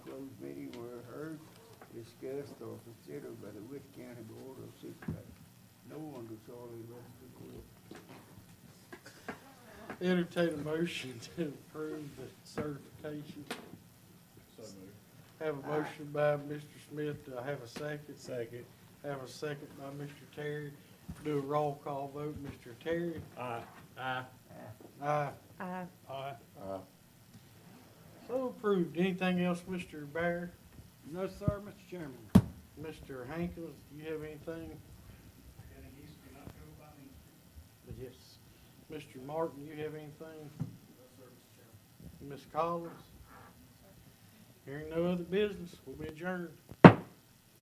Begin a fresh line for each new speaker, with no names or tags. list or considered by the Rich County Board of Supervisors. No one could solely rest the court.
Entertain a motion to approve the certification.
So moved.
Have a motion by Mr. Smith, do I have a second?
Second.
Have a second by Mr. Terry. Do a roll call vote, Mr. Terry?
Aye. Aye.
Aye.
Aye.
Aye. So approved. Anything else, Mr. Bear?
No, sir, Mr. Chairman.
Mr. Hankins, do you have anything? Yes. Mr. Martin, you have anything? Ms. Collins? Hearing no other business, we'll be adjourned.